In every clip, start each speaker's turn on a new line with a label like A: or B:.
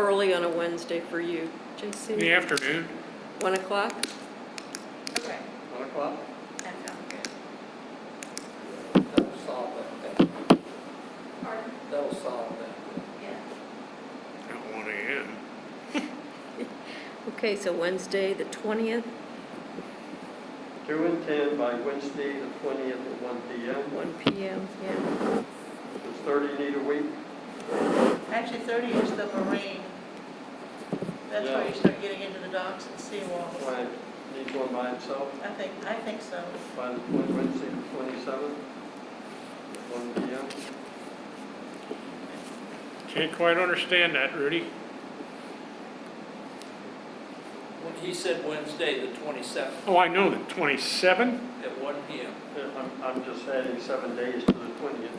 A: early on a Wednesday for you,
B: in the
A: JC?
B: afternoon.
A: One o'clock?
C: Okay,
D: One o'clock?
C: that sounds good.
D: That'll solve that, thing.
C: Pardon?
D: that'll solve that.
C: Yeah.
B: At one AM.
A: Okay, so Wednesday, the twentieth,
E: Two and ten by Wednesday, the twentieth at one P M.
A: one P M, yeah.
E: Does thirty need a week?
F: Actually, 30 is the marine. That's where you start getting into the docks and seawalls.
E: Why, needs one by itself
F: I think, I think so.
E: by the twen- Wednesday, the twenty-seventh at one P M?
B: Can't quite understand that, Rudy.
D: When he said Wednesday, the twenty-seventh,
B: Oh, I know, the 27?
D: at one P M.
E: I'm, I'm just adding seven days to the twentieth.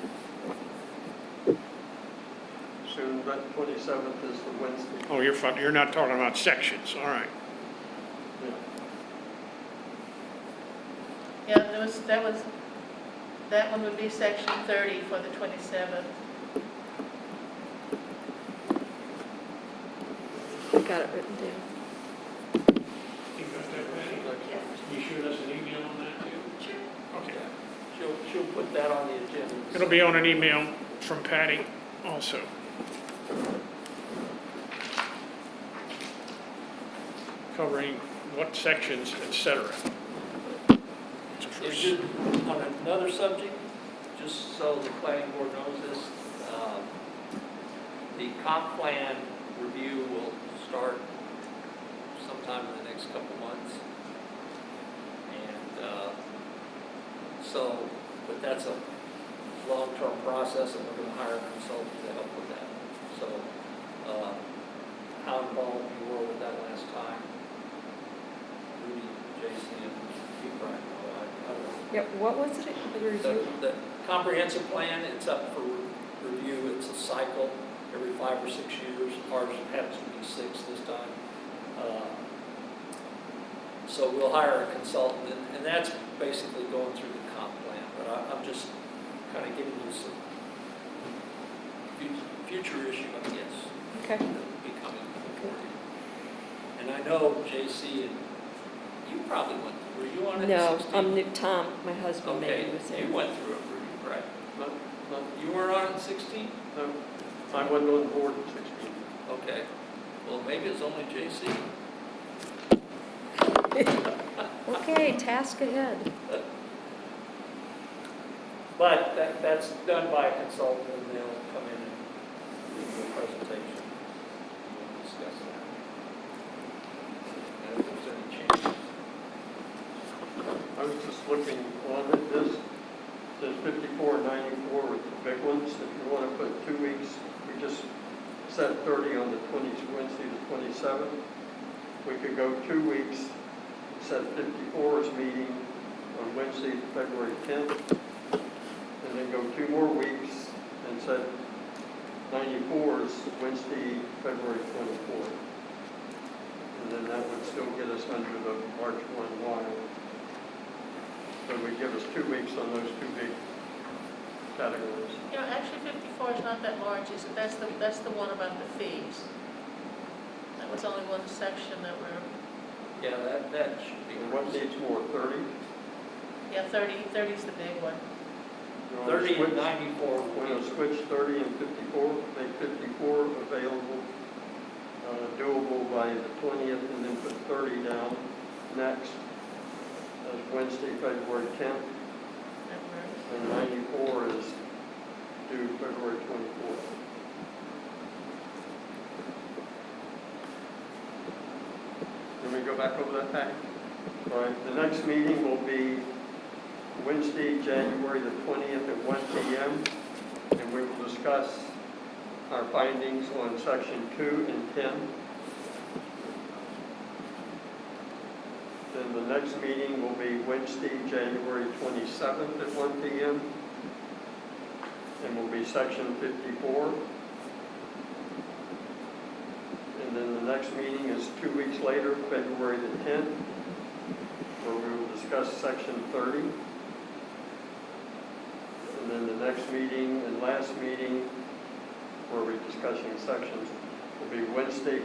E: Soon, but twenty-seventh is the Wednesday.
B: Oh, you're, fu- you're not talking about sections, all right.
E: Yeah.
F: Yeah, there was, that was, that one would be section 30 for the 27th.
A: I got it written down.
B: You got that, Patty? You shoot us an email on that, too?
C: Sure.
B: Okay.
D: She'll, she'll put that on the agenda.
B: It'll be on an email from Patty also. Covering what sections, et cetera. It's a
D: If
B: first.
D: you, on another subject, just so the planning board knows this, um, the comp plan review will start sometime in the next couple months. And uh, so, but that's a long-term process, and we're going to hire a consultant to help with that. So uh, how involved you were with that last time, Rudy, Jason, and you, Brian, I- I don't know.
A: Yeah, what was it, the
D: The,
A: review?
D: the comprehensive plan, it's up for review, it's a cycle, every five or six years, ours happens to be six this time. Uh, So we'll hire a consultant, and, and that's basically going through the comp plan, but I, I'm just kind of giving you some fut- future issue, I guess
A: Okay,
D: that'll be coming before you. And I know JC, and you probably went, were you on it?
A: no,
D: 16?
A: I'm Nick Tom, my husband,
D: Okay,
A: maybe was there.
D: you went through it, Rudy, right?
E: No, no,
D: You were on it in 16?
E: no. I wasn't on board at sixteen.
D: Okay. Well, maybe it's only JC.
A: Okay, task ahead.
D: But that, that's done by a consultant, and they'll come in and do a presentation. We'll discuss that. And if there's any changes.
E: I was just looking on at this, there's fifty-four ninety-four with the big ones, if you want to put two weeks, we just set thirty on the twenty, Wednesday the twenty-seventh. We could go two weeks, set 54's meeting on Wednesday, February tenth, and then go two more weeks and set 94's Wednesday, February twenty-fourth. And then that would still get us under the March one wire. So we give us two weeks on those two big categories.
F: You know, actually 54 is not that large, is it? That's the, that's the one about the fees. That was only one section that we're,
D: Yeah, that, that should be.
E: And what needs more, 30?
F: yeah, 30, 30 is the big one.
E: You wanna
D: 30
E: switch-
D: and 94 will
E: We're
D: be
E: going to switch 30 and 54, make 54 available, uh, doable by the 20th, and then put 30 down next as Wednesday, February 10th,
F: that we're-
E: and 94 is due February 24th. Can we go back over that pack? All right, the next meeting will be Wednesday, January the 20th at 1 PM, and we will discuss our findings on section 2 and 10. Then the next meeting will be Wednesday, January 27th at 1 PM, and will be section 54. And then the next meeting is two weeks later, February the 10th, where we will discuss section 30. And then the next meeting and last meeting, where we're discussing sections will be Wednesday,